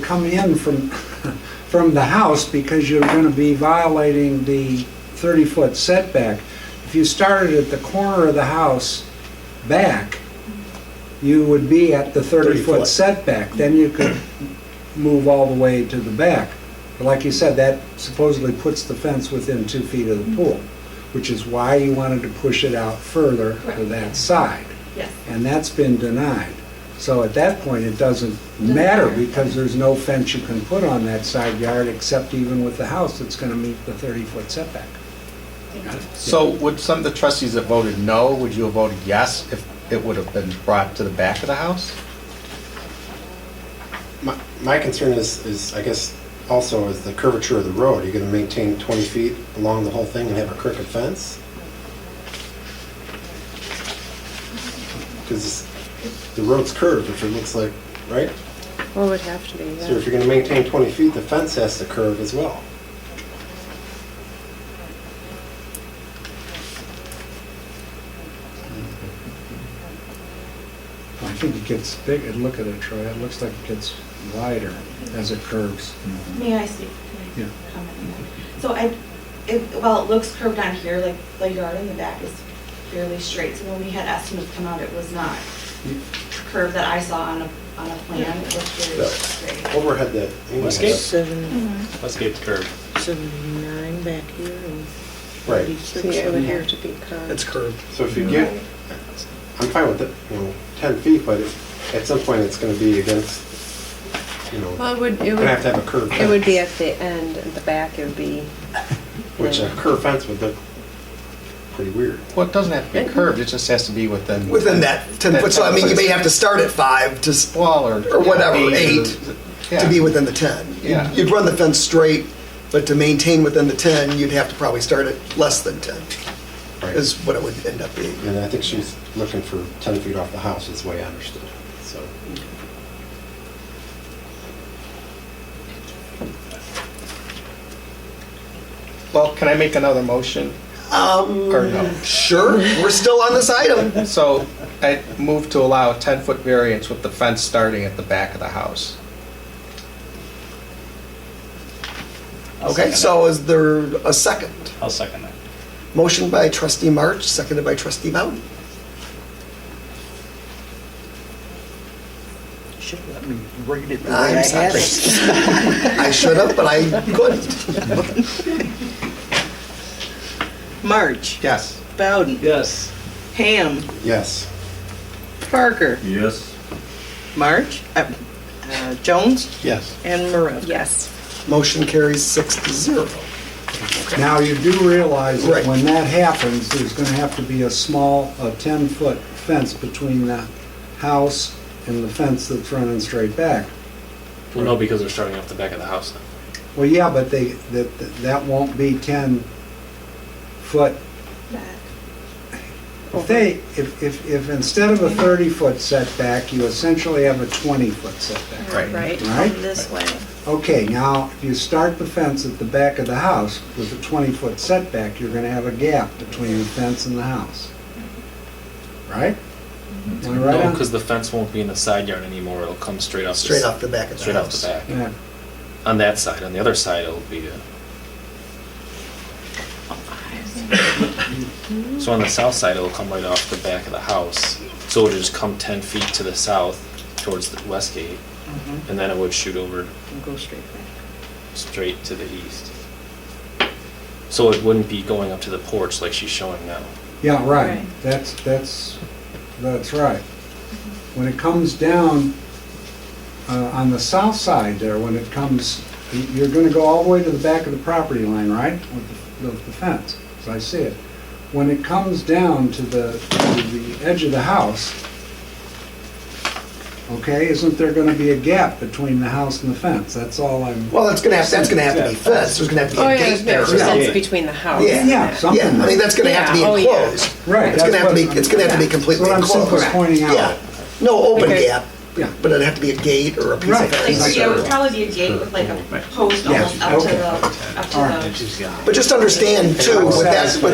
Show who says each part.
Speaker 1: come in from, from the house because you're going to be violating the 30-foot setback. If you started at the corner of the house back, you would be at the
Speaker 2: 30-foot.
Speaker 1: 30-foot setback. Then you could move all the way to the back. But like you said, that supposedly puts the fence within two feet of the pool, which is why you wanted to push it out further to
Speaker 3: Correct.
Speaker 1: that side
Speaker 3: Yes,
Speaker 1: and that's been denied. So at that point, it doesn't matter because there's no fence you can put on that side yard except even with the house that's going to meet the 30-foot setback.
Speaker 2: So would some of the trustees that voted no, would you have voted yes if it would have been brought to the back of the house?
Speaker 4: My, my concern is, is, I guess, also is the curvature of the road. You're gonna maintain twenty feet along the whole thing and have a crooked fence? Because the road's curved, which it looks like, right?
Speaker 5: Well, it would have to be,
Speaker 4: So if
Speaker 5: yeah.
Speaker 4: you're gonna maintain twenty feet, the fence has to curve as well.
Speaker 1: I think it gets bigger, look at it, Troy, it looks like it gets wider as it curves.
Speaker 3: may I speak? Can I
Speaker 1: Yeah.
Speaker 3: comment on that? So I, it, while it looks curved on here, like the yard in the back is fairly straight, so when we had estimates come out, it was not curved that I saw on a, on a plan, it was
Speaker 4: No.
Speaker 3: very straight.
Speaker 4: Overhead that.
Speaker 2: Westgate?
Speaker 6: Seven,
Speaker 2: Westgate's curved.
Speaker 6: seven, nine Mm-hmm. back here and
Speaker 4: Right,
Speaker 5: So
Speaker 6: 36
Speaker 5: it
Speaker 6: over
Speaker 5: would
Speaker 6: here.
Speaker 5: have to be curved.
Speaker 7: It's curved.
Speaker 4: so if you get, I'm fine with it, you know, ten feet, but it- at some point, it's gonna be against, you know,
Speaker 5: Well, it would, it
Speaker 4: gonna have to
Speaker 5: would,
Speaker 4: have a curved fence.
Speaker 5: it would be at the end, at the back, it would be.
Speaker 4: Which a curved fence would look pretty weird.
Speaker 2: Well, it doesn't have to be curved, it just has to be within.
Speaker 7: Within that 10 foot, so I mean, you may have to start at five to, s-
Speaker 2: Well, or.
Speaker 7: Or whatever, eight,
Speaker 2: Yeah.
Speaker 7: to be within the 10. You'd-
Speaker 2: Yeah.
Speaker 7: You'd run the fence straight, but to maintain within the 10, you'd have to probably start at less than 10,
Speaker 4: Right.
Speaker 7: is what it would end up being.
Speaker 4: And I think she's looking for 10 feet off the house, is the way I understood. So,
Speaker 2: Well, can I make another motion? Or no?
Speaker 7: Um, Sure, we're still on this item.
Speaker 2: So I move to allow a 10-foot variance with the fence starting at the back of the house.
Speaker 7: Okay, so is there a second?
Speaker 8: I'll second that.
Speaker 7: Motion by trustee March, seconded by trustee Bowden.
Speaker 6: Should have let me read it the way
Speaker 7: I'm
Speaker 6: I had
Speaker 7: sorry.
Speaker 6: it.
Speaker 7: I should have, but I couldn't.
Speaker 6: March,
Speaker 2: Yes.
Speaker 6: Bowden.
Speaker 8: Yes.
Speaker 6: Ham,
Speaker 4: yes.
Speaker 6: Parker,
Speaker 8: Yes.
Speaker 6: March, uh, uh, Jones,
Speaker 4: Yes.
Speaker 6: and Maravka.
Speaker 5: Yes.
Speaker 7: Motion carries six to zero.
Speaker 1: Now, you do realize
Speaker 7: Right.
Speaker 1: that when that happens, there's going to have to be a small, a 10-foot fence between the house and the fence that's running straight back.
Speaker 9: Well, no, because they're starting off the back of the house now.
Speaker 1: Well, yeah, but they, that, that won't be 10-foot
Speaker 3: Back.
Speaker 1: If they, if, if, if instead of a 30-foot setback, you essentially have a 20-foot setback.
Speaker 2: Right.
Speaker 1: Right.
Speaker 5: Come This way.
Speaker 1: Okay, now, if you start the fence at the back of the house with a 20-foot setback, you're gonna have a gap between the fence and the house. Right? Am I right
Speaker 9: No,
Speaker 1: on?
Speaker 9: because the fence won't be in the side yard anymore. It'll come straight off. the
Speaker 7: Straight
Speaker 9: s-
Speaker 7: off the back of the
Speaker 9: Straight off
Speaker 7: house.
Speaker 9: the back.
Speaker 1: Yeah.
Speaker 9: On that side. On the other side, it'll be. uh so on the south side, it'll come right off the back of the house. So it'll just come ten feet to the south towards the west gate,
Speaker 6: Mhm.
Speaker 9: and then it would shoot over
Speaker 6: And Go straight back.
Speaker 9: straight to the east. So it wouldn't be going up to the porch like she's showing now.
Speaker 1: Yeah, right.
Speaker 5: Right.
Speaker 1: That's, that's, that's right. When it comes down uh, on the south side there, when it comes, you- you're going to go all the way to the back of the property line, right? With the- with the fence, as I see it. When it comes down to the, to the edge of the house, okay, isn't there going to be a gap between the house and the fence? That's all I'm,
Speaker 7: Well, that's gonna have, that's gonna have to be fenced, there's gonna have to be
Speaker 5: Oh,
Speaker 7: a
Speaker 5: yeah,
Speaker 7: gate
Speaker 5: there's
Speaker 7: there.
Speaker 5: no
Speaker 7: Yeah,
Speaker 5: sense between the house.
Speaker 7: Yeah.
Speaker 5: and
Speaker 1: Yeah,
Speaker 5: that.
Speaker 1: some-
Speaker 7: yeah, I mean, that's gonna have to be
Speaker 5: Yeah, oh, yeah.
Speaker 7: enclosed.
Speaker 1: right.
Speaker 7: It's
Speaker 1: that's
Speaker 7: gonna have to
Speaker 1: what
Speaker 7: be,
Speaker 1: I'm-
Speaker 7: it's gonna have to be completely
Speaker 1: That's what I'm simply
Speaker 7: enclosed.
Speaker 1: pointing out.
Speaker 7: Yeah, no open
Speaker 6: Okay.
Speaker 7: gap,
Speaker 1: Yeah.
Speaker 7: but it'd have to be a gate or a piece
Speaker 1: Right.
Speaker 7: of
Speaker 3: Like,
Speaker 7: fence.
Speaker 3: yeah, it would probably be a gate with like a post
Speaker 1: Yeah,
Speaker 3: almost up to
Speaker 1: okay.
Speaker 3: the, up to
Speaker 1: All right.
Speaker 3: the.
Speaker 7: But just understand too, with that, with